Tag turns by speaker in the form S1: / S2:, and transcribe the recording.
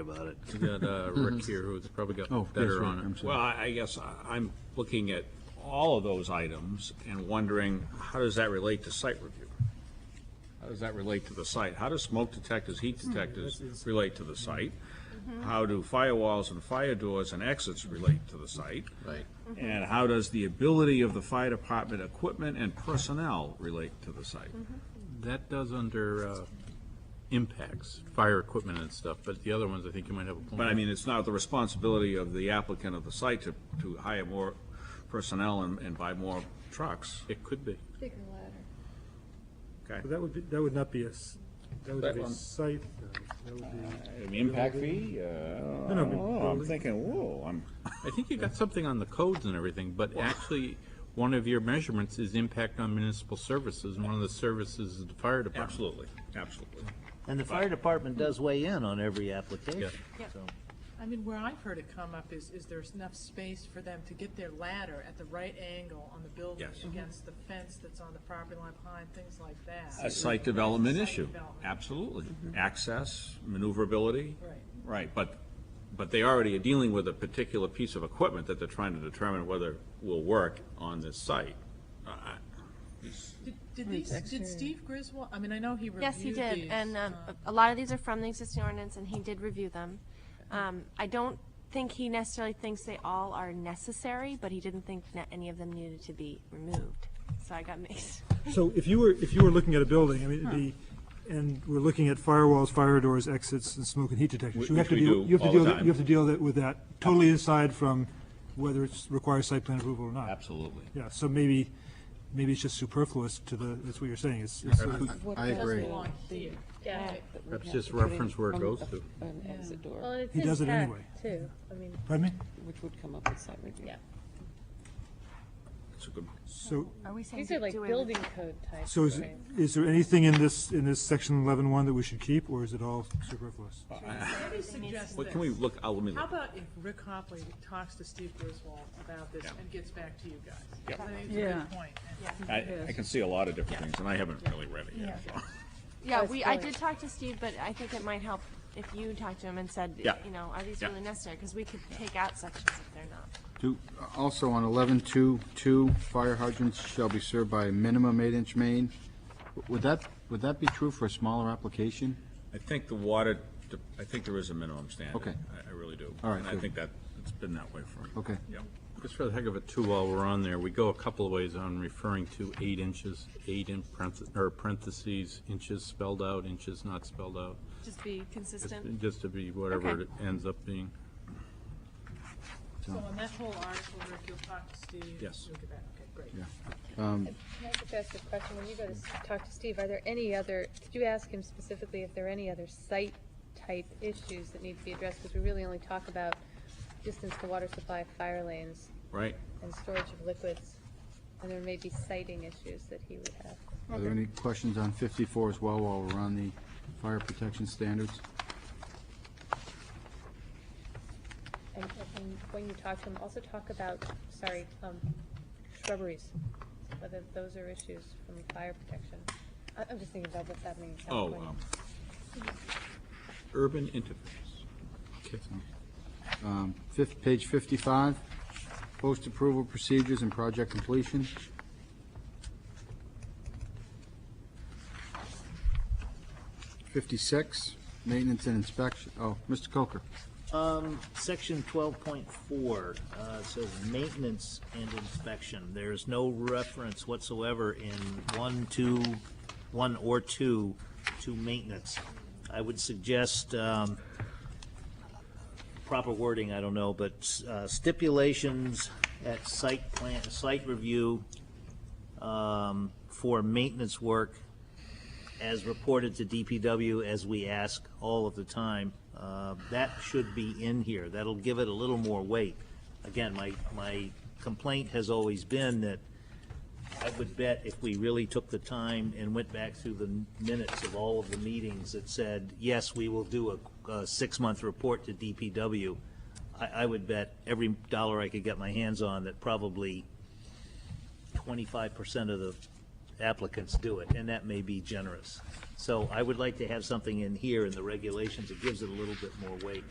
S1: about it.
S2: We got uh, Rick here, who's probably
S3: Mm-hmm. Oh,
S2: got
S3: yes,
S2: better
S3: Rick,
S2: on
S3: I'm
S2: it.
S3: sorry.
S2: Well, I I guess I- I'm looking at all of those items and wondering, how does that relate to site review? How does that relate to the site? How do smoke detectors, heat detectors
S1: Hmm,
S2: relate to the site? How do firewalls and fire doors and exits relate to the site?
S3: Right.
S2: And how does the ability of the fire department equipment and personnel relate to the site?
S3: That does under uh, impacts, fire equipment and stuff, but the other ones, I think you might have a point.
S2: But I mean, it's not the responsibility of the applicant of the site to, to hire more personnel and, and buy more trucks.
S3: It could be.
S4: Bigger ladder.
S5: But That would be, that would not be a, s-
S2: That
S5: that would be a
S2: one.
S5: site, though. that would be,
S2: An Impact fee? Uh, I
S5: no,
S2: don't know. I'm
S5: building.
S2: thinking, whoa, I'm,
S3: I think you got something on the codes and everything, but actually, one of your measurements is impact on municipal services, and one of the services is the fire department.
S2: absolutely, absolutely.
S1: And the fire department does weigh in on every application.
S6: Yeah.
S1: so-
S6: I mean, where I've heard it come up is, is there's enough space for them to get their ladder at the right angle on the building
S2: Yes.
S6: against the fence that's on the property line behind, things like
S2: A
S6: that.
S2: site development
S6: Site
S2: issue,
S6: development.
S2: absolutely. Access, maneuverability.
S6: Right.
S2: Right, but, but they already are dealing with a particular piece of equipment that they're trying to determine whether will work on this site. I-
S6: Did, did these, did Steve Griswold, I mean, I know he reviewed
S7: Yes,
S6: these.
S7: he did, and um,
S6: uh,
S7: a lot of these are from the existing ordinance, and he did review them. Um, I don't think he necessarily thinks they all are necessary, but he didn't think that any of them needed to be removed, so I got mixed.
S5: so if you were, if you were looking at a building, I mean, it'd be, and we're looking at firewalls, fire doors, exits, and smoke and heat detectors.
S2: Which-
S5: You have
S2: which
S5: to
S2: we
S5: deal-
S2: do
S5: you have to
S2: all the
S5: deal-
S2: time.
S5: You have to deal that- with that totally aside from whether it's requires site plan approval or not.
S2: Absolutely.
S5: Yeah, so maybe, maybe it's just superfluous to the, that's what you're saying, it's, it's sort of-
S8: I
S6: doesn't
S8: agree.
S6: belong here.
S3: Perhaps just reference where it goes to.
S8: An exit
S4: Well,
S8: door,
S4: and it's
S5: He does it
S4: intact,
S5: anyway.
S4: Too, I mean,
S5: pardon me?
S8: which would come up with site review.
S4: Yeah.
S2: It's a good,
S5: So,
S7: Are we saying
S4: these are like
S7: do away with-
S4: building code type
S5: so is,
S4: things.
S5: is there anything in this, in this section eleven one that we should keep, or is it all superfluous?
S6: Let me suggest
S2: Well, can we
S6: this.
S2: look, oh, let me
S6: How
S2: look.
S6: about if Rick Hopley talks to Steve Griswold about this and gets back to you guys?
S2: Yeah.
S6: I think it's a good point.
S2: I, I can see a lot of different things, and I haven't really read it yet, so.
S7: Yeah, we, I did talk to Steve, but I think it might help if you talked to him and said,
S2: Yeah.
S7: you know, are these
S2: Yeah.
S7: really necessary? Because we could take out sections if they're not.
S8: Two- Also on eleven two, two, fire hydrants shall be served by a minimum eight-inch main. Would that, would that be true for a smaller application?
S2: I think the water, de- I think there is a minimum standard.
S8: Okay.
S2: I, I really do.
S8: All right,
S2: And I
S8: good.
S2: think that, it's been that way for.
S8: Okay.
S2: Yeah.
S3: Just for the heck of it, too, while we're on there, we go a couple of ways on referring to eight inches, eight in parentheses, or parentheses, inches spelled out, inches not spelled out,
S7: Just be consistent.
S3: just to be whatever
S7: Okay.
S3: it ends up being.
S6: So on that whole article, Rick, you'll talk to Steve.
S2: Yes.
S6: You'll get back, okay, great.
S4: Can I just ask a question? When you go to s- talk to Steve, are there any other, did you ask him specifically if there are any other site type issues that need to be addressed? Because we really only talk about distance to water supply, fire lanes,
S2: Right?
S4: and storage of liquids. And there may be siting issues that he would have.
S8: Are there any questions on fifty-four as well while we're on the fire protection standards?
S4: And, and when you talk to him, also talk about, sorry, um, shrubberies, whether those are issues from fire protection. I, I'm just thinking about what's happening in South
S2: Oh,
S4: Florida.
S2: um, urban interface.
S8: Um, Fifth, page fifty-five, post-approval procedures and project completion. Fifty-six, maintenance and inspection, oh, Mr. Coker.
S1: Um, section twelve point four, uh, says maintenance and inspection. There's no reference whatsoever in one, two, one or two to maintenance. I would suggest, um, proper wording, I don't know, but uh, stipulations at site plan, site review, um, for maintenance work as reported to DPW as we ask all of the time, uh, that should be in here. That'll give it a little more weight. Again, my, my complaint has always been that I would bet if we really took the time and went back through the minutes of all of the meetings that said, yes, we will do a, a six-month report to DPW, I, I would bet every dollar I could get my hands on that probably twenty-five percent of the applicants do it, and that may be generous. So I would like to have something in here in the regulations that gives it a little bit more weight.